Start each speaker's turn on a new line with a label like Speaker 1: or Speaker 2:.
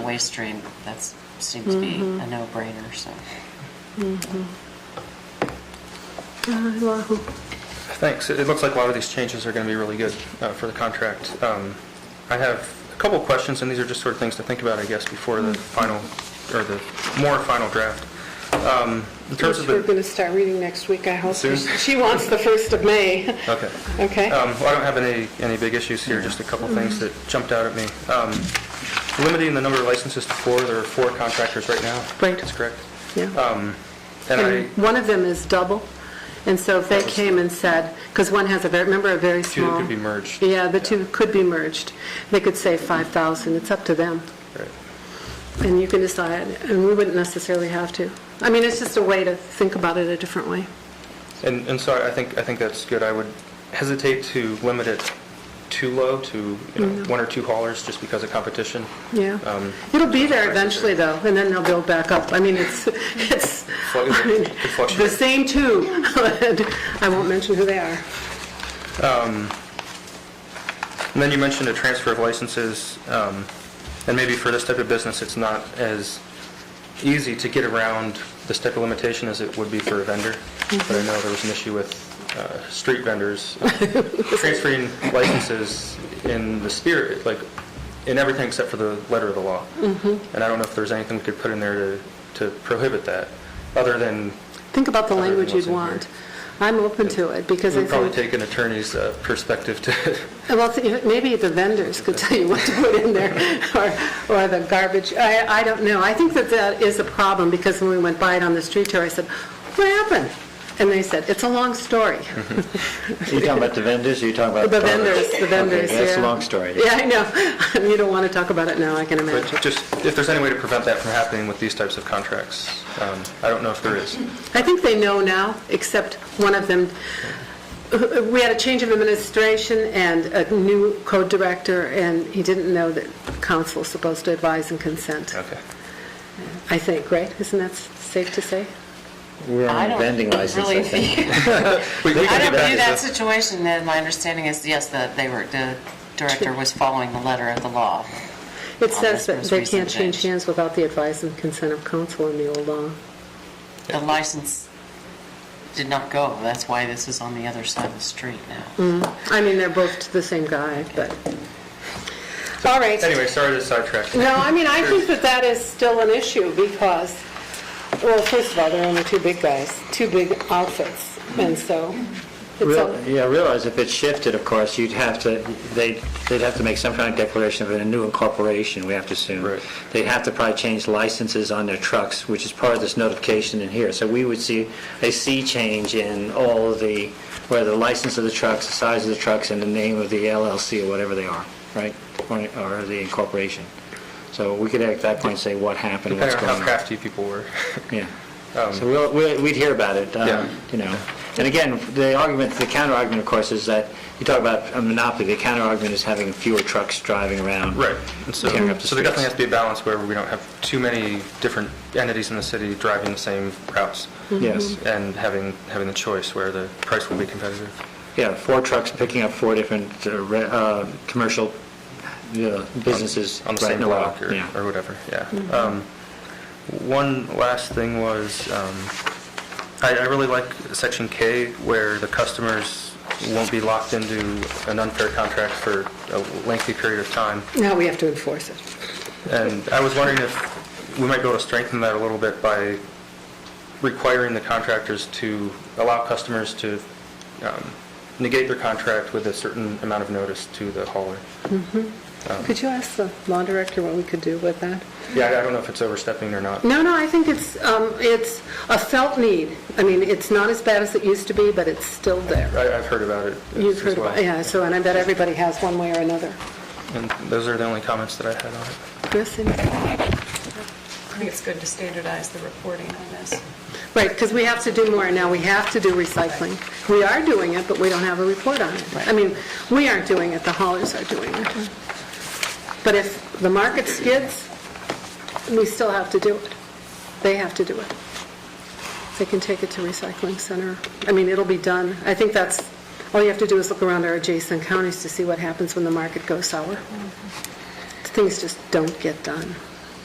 Speaker 1: waste stream, that seems to be a no-brainer, so.
Speaker 2: Uh,
Speaker 3: Thanks. It it looks like a lot of these changes are going to be really good uh, for the contract. Um, I have a couple of questions, and these are just sort of things to think about, I guess, before the final, or the more final draft. Um, In terms of
Speaker 2: Which we're
Speaker 3: the,
Speaker 2: going to start reading next week, I hope.
Speaker 3: Soon?
Speaker 2: She wants the 1st of May,
Speaker 3: okay.
Speaker 2: okay?
Speaker 3: Um, well, I don't have any, any big issues here, just a couple of things that jumped out at me. Um, Limiting the number of licenses to four, there are four contractors right now.
Speaker 2: Right.
Speaker 3: That's correct.
Speaker 2: Yeah.
Speaker 3: And
Speaker 2: And
Speaker 3: I,
Speaker 2: one of them is double, and so if they came and said, because one has a, very remember, a very
Speaker 3: two that
Speaker 2: small...
Speaker 3: could be merged.
Speaker 2: Yeah, the two could be merged. They could say 5,000, it's up to them.
Speaker 3: Right.
Speaker 2: And you can decide, and we wouldn't necessarily have to. I mean, it's just a way to think about it a different way.
Speaker 3: And, and so I think, I think that's good. I would hesitate to limit it too low to, you know, one or two haulers just because of competition.
Speaker 2: Yeah.
Speaker 3: Um,
Speaker 2: It'll be there eventually, though, and then they'll build back up. I mean, it's, it's,
Speaker 3: Fluctu-
Speaker 2: I mean,
Speaker 3: it fluctuates.
Speaker 2: the same two. I won't mention who they are.
Speaker 3: And then you mentioned a transfer of licenses, um, and maybe for this type of business, it's not as easy to get around this type of limitation as it would be for a vendor. But I know there was an issue with uh, street vendors uh, transferring licenses in the spirit, like, in everything except for the letter of the law. And I don't know if there's anything we could put in there to to prohibit that, other than
Speaker 2: Think about the
Speaker 3: Other than
Speaker 2: language
Speaker 3: what's
Speaker 2: you'd
Speaker 3: in here.
Speaker 2: want. I'm open to it, because
Speaker 3: It
Speaker 2: I
Speaker 3: would probably
Speaker 2: think,
Speaker 3: take an attorney's uh, perspective to,
Speaker 2: well, th- maybe the vendors could tell you what to put in there, or, or the garbage, I, I don't know. I think that that is a problem, because when we went by it on the street tour, I said, what happened? And they said, it's a long story.
Speaker 4: Are you talking about the vendors, or are you talking about?
Speaker 2: Oh, The
Speaker 4: garbage?
Speaker 2: vendors, the vendors,
Speaker 4: Okay, That's a
Speaker 2: yeah.
Speaker 4: long story.
Speaker 2: Yeah, I know. You don't want to talk about it now, I can
Speaker 3: but
Speaker 2: imagine.
Speaker 3: just, if there's any way to prevent that from happening with these types of contracts, um, I don't know if there is.
Speaker 2: I think they know now, except one of them, we had a change of administration and a new code director, and he didn't know that council's supposed to advise and consent,
Speaker 3: Okay.
Speaker 2: I think, right? Isn't that safe to say?
Speaker 4: We're
Speaker 1: I
Speaker 4: on a
Speaker 1: don't
Speaker 4: vending license,
Speaker 1: really
Speaker 4: I think.
Speaker 3: We we
Speaker 1: I
Speaker 3: can
Speaker 1: don't
Speaker 3: get
Speaker 1: view
Speaker 3: back
Speaker 1: that
Speaker 3: to
Speaker 1: situation, then my understanding is, yes, that they were, the director was following the letter of the law.
Speaker 2: It
Speaker 1: Oh,
Speaker 2: says
Speaker 1: that's
Speaker 2: that
Speaker 1: most
Speaker 2: they
Speaker 1: recent
Speaker 2: can't change
Speaker 1: change.
Speaker 2: hands without the advice and consent of council in the old law.
Speaker 1: The license did not go, that's why this is on the other side of the street now.
Speaker 2: I mean, they're both the same guy, but, all right.
Speaker 3: the- Anyway, sorry to sidetrack.
Speaker 2: No, I mean, I think that that is still an issue because, well, first of all, there are only two big guys, two big outfits, and so it's
Speaker 4: Real-
Speaker 2: a,
Speaker 4: Yeah, realize if it shifted, of course, you'd have to, they'd, they'd have to make some kind of declaration of a new incorporation, we have to assume.
Speaker 3: Right.
Speaker 4: They'd have to probably change licenses on their trucks, which is part of this notification in here. So we would see a sea change in all of the, where the license of the trucks, the size of the trucks, and the name of the LLC or whatever they are, right? Or or the incorporation. So we could at that point say what happened,
Speaker 3: Depending
Speaker 4: what's
Speaker 3: on
Speaker 4: going on.
Speaker 3: how crafty people were.
Speaker 4: Yeah. So we'll, we'll- we'd hear about it, um,
Speaker 3: Um, Yeah.
Speaker 4: you know. And again, the argument, the counter argument, of course, is that you talk about a monopoly, the counter argument is having fewer trucks driving around.
Speaker 3: Right. And So
Speaker 4: Tearing up the
Speaker 3: so there definitely has
Speaker 4: streets.
Speaker 3: to be a balance where we don't have too many different entities in the city driving the same routes.
Speaker 4: Yes.
Speaker 3: And having, having the choice where the price will be competitive.
Speaker 4: Yeah, four trucks picking up four different uh, re- uh, commercial uh, businesses.
Speaker 3: on the
Speaker 4: right
Speaker 3: same
Speaker 4: in a row.
Speaker 3: block or,
Speaker 4: Yeah.
Speaker 3: or whatever, yeah. Um, One last thing was, um, I, I really like section K where the customers won't be locked into an unfair contract for a lengthy period of time.
Speaker 2: now we have to enforce it.
Speaker 3: And I was wondering if we might be able to strengthen that a little bit by requiring the contractors to allow customers to um, negate their contract with a certain amount of notice to the hauler.
Speaker 2: Could you ask the law director what we could do with that?
Speaker 3: Yeah, I I don't know if it's overstepping or not.
Speaker 2: No, no, I think it's, um, it's a felt need. I mean, it's not as bad as it used to be, but it's still there.
Speaker 3: I- I've heard about it.
Speaker 2: You've
Speaker 3: as
Speaker 2: heard
Speaker 3: well.
Speaker 2: about, yeah, so, and I bet everybody has one way or another.
Speaker 3: And those are the only comments that I had on it.
Speaker 2: Chris, anything?
Speaker 5: I think it's good to standardize the reporting on this.
Speaker 2: Right, because we have to do more now, we have to do recycling. We are doing it, but we don't have a report on it. I mean, we aren't doing it, the haulers are doing it. But if the market skids, we still have to do it. They have to do it. They can take it to recycling center. I mean, it'll be done. I think that's, all you have to do is look around our adjacent counties to see what happens when the market goes sour. Things just don't get done.